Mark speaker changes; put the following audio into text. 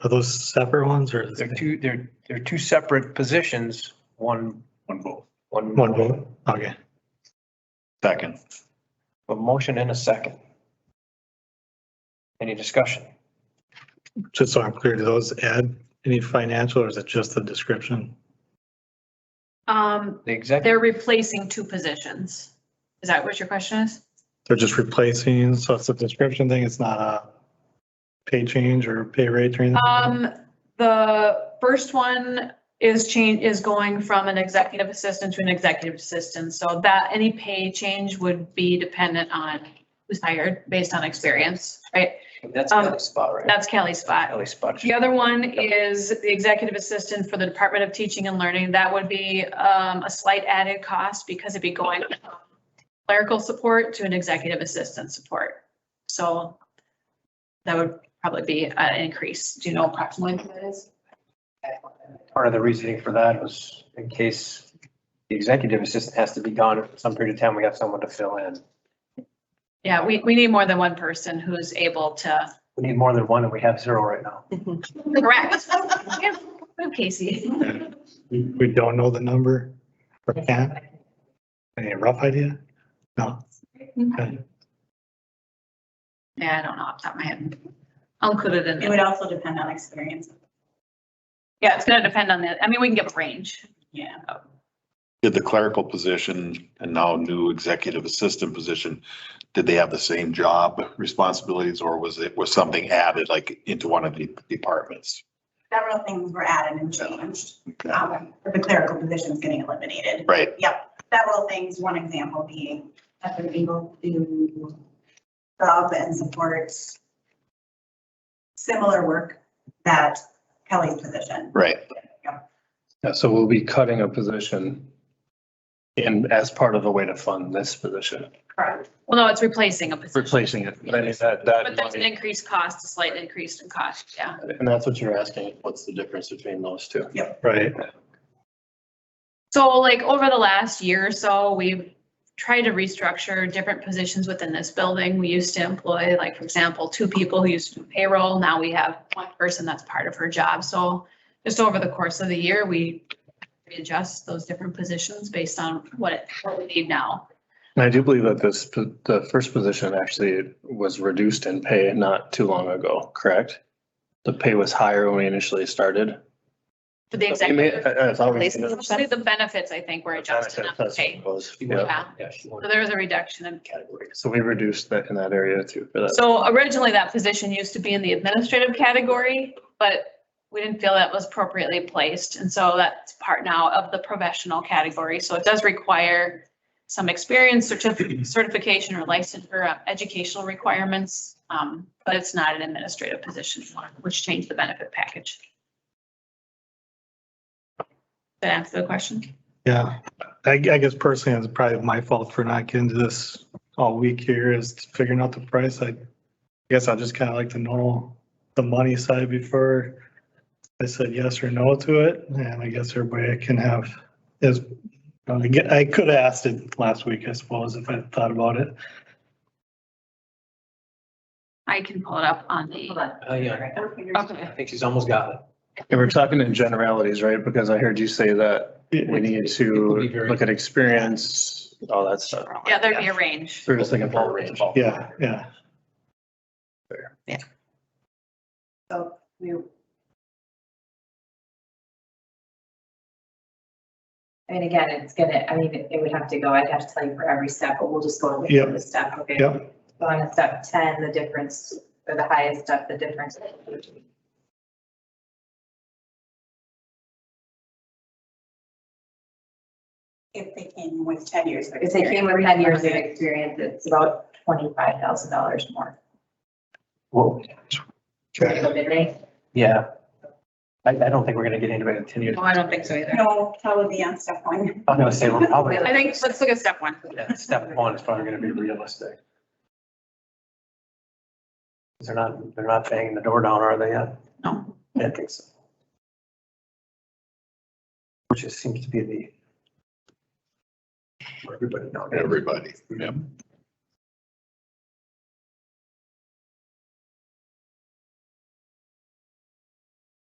Speaker 1: Are those separate ones or? is
Speaker 2: They're
Speaker 1: it
Speaker 2: two, they're, they're two separate positions, one. One vote. One.
Speaker 1: One vote? Okay.
Speaker 3: Second.
Speaker 2: A motion and a second. Any discussion?
Speaker 1: Just so I'm clear, do those add any financial or is it just the description?
Speaker 4: Um,
Speaker 2: The executive,
Speaker 4: they're replacing two positions. Is that what your question is?
Speaker 1: They're just replacing, so it's a description thing, it's not a pay change or pay rate or anything?
Speaker 4: Um, the first one is change, is going from an executive assistant to an executive assistant. So that, any pay change would be dependent on who's hired based on experience, right?
Speaker 2: that's
Speaker 4: um,
Speaker 2: Kelly's spot, right?
Speaker 4: That's Kelly's spot.
Speaker 2: Kelly's spot.
Speaker 4: The other one is the executive assistant for the Department of Teaching and Learning. That would be um, a slight added cost because it'd be going from clerical support to an executive assistant support. So that would probably be an increase. Do you know approximately what that is?
Speaker 2: Part of the reasoning for that was in case the executive assistant has to be gone for some period of time, we have someone to fill in.
Speaker 4: Yeah, we, we need more than one person who's able to
Speaker 2: We need more than one and we have zero right now.
Speaker 4: correct. Yeah, Casey,
Speaker 1: We we don't know the number or can't? Any rough idea? No? Okay.
Speaker 4: yeah, I don't know off the top of my head. I'll include it in.
Speaker 5: It
Speaker 4: there.
Speaker 5: would also depend on experience,
Speaker 4: Yeah, it's gonna depend on the, I mean, we can give a range.
Speaker 5: yeah.
Speaker 3: Did the clerical position and now new executive assistant position, did they have the same job responsibilities or was it, was something added like into one of the departments?
Speaker 5: Several things were added and changed. Um, The clerical position's getting eliminated.
Speaker 3: Right,
Speaker 5: Several things, one example being that they're able to sub and support similar work that Kelly's position.
Speaker 3: right.
Speaker 6: Yeah, so we'll be cutting a position in, as part of a way to fund this position,
Speaker 5: Correct.
Speaker 4: Well, no, it's replacing a position,
Speaker 6: replacing it. But I mean, that,
Speaker 4: but
Speaker 6: that,
Speaker 4: there's an
Speaker 6: money-
Speaker 4: increased cost, a slight increase in cost, yeah.
Speaker 6: and that's what you're asking, what's the difference between those two?
Speaker 1: Right,
Speaker 4: So like over the last year or so, we've tried to restructure different positions within this building. We used to employ, like, for example, two people who used to do payroll. Now we have one person that's part of her job. So just over the course of the year, we readjust those different positions based on what, it- what we need now.
Speaker 6: And I do believe that this, po- the first position actually was reduced in pay not too long ago, correct? The pay was higher when we initially started.
Speaker 4: For the
Speaker 6: We may-
Speaker 4: executive,
Speaker 6: I- I thought we-
Speaker 4: mostly the benefits, I think, were adjusted on the pay.
Speaker 6: Was- yeah.
Speaker 4: Yeah,
Speaker 2: Yeah, she
Speaker 4: so
Speaker 2: wanted
Speaker 4: there was a reduction in
Speaker 2: category.
Speaker 6: So we reduced that in that area too for that.
Speaker 4: So originally, that position used to be in the administrative category, but we didn't feel that was appropriately placed. And so that's part now of the professional category. So it does require some experience, certif- certification or license or uh, educational requirements. um, But it's not an administrative position, which changed the benefit package. Did I answer the question?
Speaker 1: yeah. I, I guess personally, it's probably my fault for not getting to this all week here is figuring out the price. I guess I just kind of like to know the money side before I said yes or no to it. And I guess everybody can have is, I get- I could have asked it last week, I suppose, if I thought about it.
Speaker 4: I can pull it up on
Speaker 5: Hold
Speaker 4: the.
Speaker 5: on.
Speaker 2: Oh, yeah.
Speaker 5: Um,
Speaker 4: Okay.
Speaker 2: I think she's almost got it.
Speaker 6: And we're talking in generalities, right? Because I heard you say that we need
Speaker 2: It
Speaker 6: to
Speaker 2: would be very-
Speaker 6: look at experience, all that stuff.
Speaker 4: Yeah, there'd be a range.
Speaker 6: We're just looking for a range.
Speaker 1: Yeah, yeah.
Speaker 5: So we.
Speaker 7: I mean, again, it's gonna, I mean, it would have to go, I'd have to tell you for every step, but we'll just go over
Speaker 1: Yep.
Speaker 7: the step, okay?
Speaker 1: Yep.
Speaker 7: So on a step ten, the difference, or the highest step, the difference.
Speaker 5: If they came with ten years. of
Speaker 7: If they came with
Speaker 5: experience.
Speaker 7: ten years of experience, it's about twenty-five thousand dollars more.
Speaker 2: Well,
Speaker 7: Right?
Speaker 2: yeah. I, I don't think we're gonna get anybody in ten years.
Speaker 7: I don't think so either.
Speaker 5: No, probably on step one.
Speaker 2: I'm gonna say we're probably,
Speaker 4: I think, let's look at step one.
Speaker 2: yeah, step one is probably gonna be realistic. They're not, they're not banging the door down, are they yet?
Speaker 4: No.
Speaker 2: I don't think so. Which just seems to be the. Everybody now.
Speaker 3: Everybody, yeah.